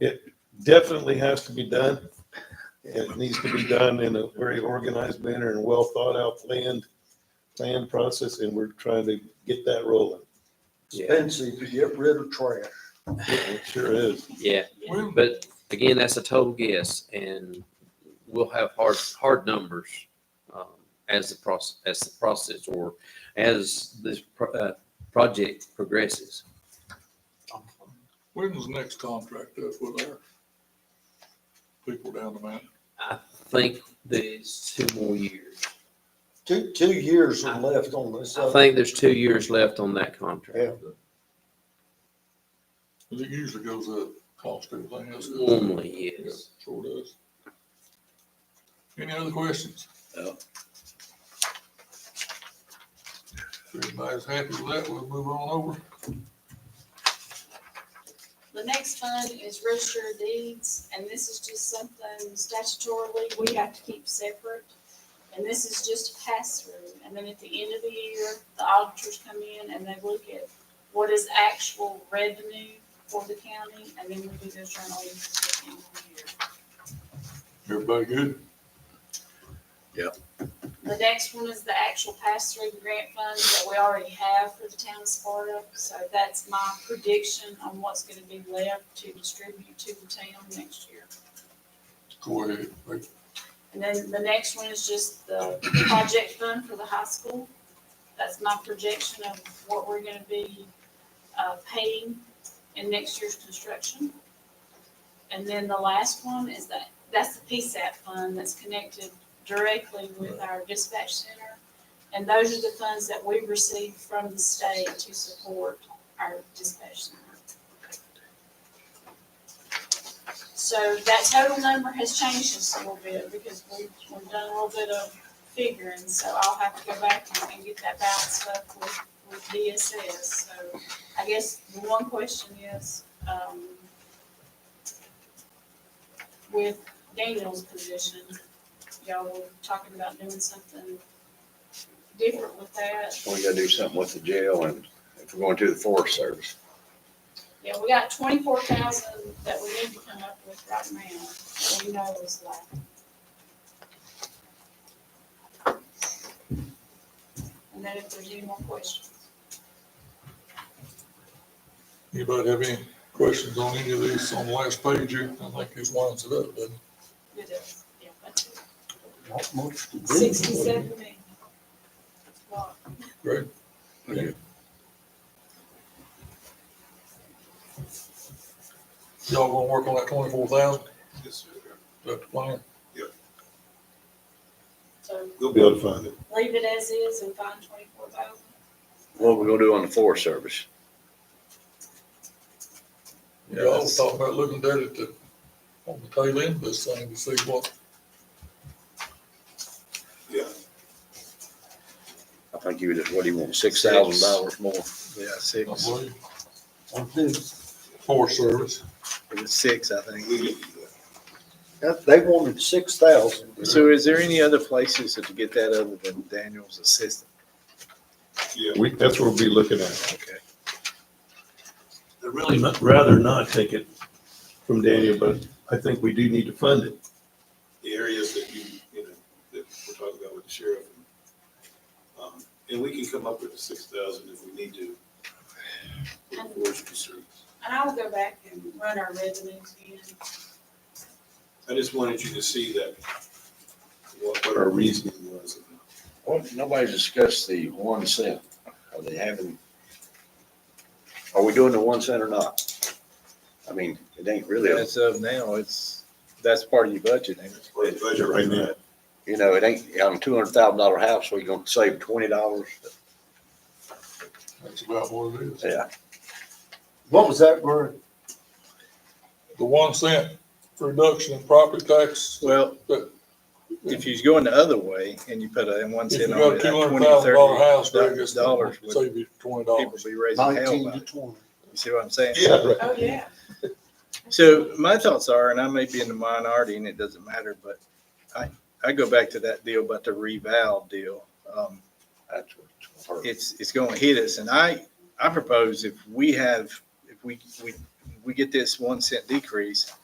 definitely has to be done. It needs to be done in a very organized manner and well thought out planned, planned process, and we're trying to get that rolling. expensive to get rid of trash. It sure is. Yeah, but again, that's a total guess and we'll have hard, hard numbers um, as the process, as the process or as this pro- uh, project progresses. When was the next contract up with our people down the mountain? I think there's two more years. Two, two years are left on this. I think there's two years left on that contract. It usually goes up, cost everything else. goes up. Normally, Yeah, yes. Sure does. Any other questions? No. If everybody's happy with that, we'll move on over. The next fund is register of deeds, and this is just something statutorily we have to keep separate. And this is just a pass through, and then at the end of the year, the auditors come in and they look at what is actual revenue for the county, and then we do those journal entries at the end of the year. Everybody good? The next one is the actual pass-through grant fund that we already have for the town of Sparta. So that's my prediction on what's gonna be left to distribute to the town next year. Go ahead. Like, And then the next one is just the project fund for the high school. That's my projection of what we're gonna be, uh, paying in next year's construction. And then the last one is that, that's the PSAP fund that's connected directly with our dispatch center. And those are the funds that we receive from the state to support our dispatch center. So that total number has changed just a little bit because we've, we've done a little bit of figuring, so I'll have to go back and- and get that balanced up with, with DSS. So I guess the one question is, um, with Daniel's position, y'all were talking about doing something different with that. We gotta do something with the jail and if we're going to the Forest Service. Yeah, we got twenty-four thousand that we need to come up with right now, that we know is left. And then if there's any more questions. Anybody have any questions on any of these on the last page here? I think this winds it up, doesn't Good, yeah, that's it. Not much to do. Sixty-seven million. That's a lot. it? Y'all gonna work on that twenty-four thousand? Yes, sir. That's the plan? So You'll be able to find it. leave it as is and find twenty-four thousand. What we gonna do on the Forest Service? Yeah, I was talking about looking at it to, on the tail end of this thing to see what, I think he was, what do you want, six thousand dollars more? Yeah, I six. believe, I do. for service. It was six, I think. That- They wanted six thousand. So is there any other places that to get that other than Daniel's assistant? Yeah, we, that's what we'll be looking at. Okay. I'd really not, rather not take it from Daniel, but I think we do need to fund it. the areas that you, you know, that we're talking about with the sheriff. Um, And we can come up with the six thousand if we need to. for the forest concerns. And I will go back and run our revenues again. I just wanted you to see that, what, what our reasoning was. Well, nobody's discussed the one cent. Are they having? Are we doing the one cent or not? I mean, it ain't really, As of now, it's, that's part of your budget. ain't it? It's part of the budget right now. you know, it ain't, on a two hundred thousand dollar house, we gonna save twenty dollars? That's about what it is. Yeah. What was that, Gary? The one cent reduction in property tax, Well, if you go in the other way and you put a one if you cent got on a it, two that hundred twenty, thousand dollar house, Greg, thirty it's dollars would save you twenty people dollars. be raising hell Nineteen to about it. twenty. You see what I'm saying? Yeah. Oh, yeah. So my thoughts are, and I may be in the minority and it doesn't matter, but I, I go back to that deal about the reval deal. Um, That's what it's gonna hurt. it's, it's going to hit us. And I, I propose if we have, if we, we, we get this one cent decrease,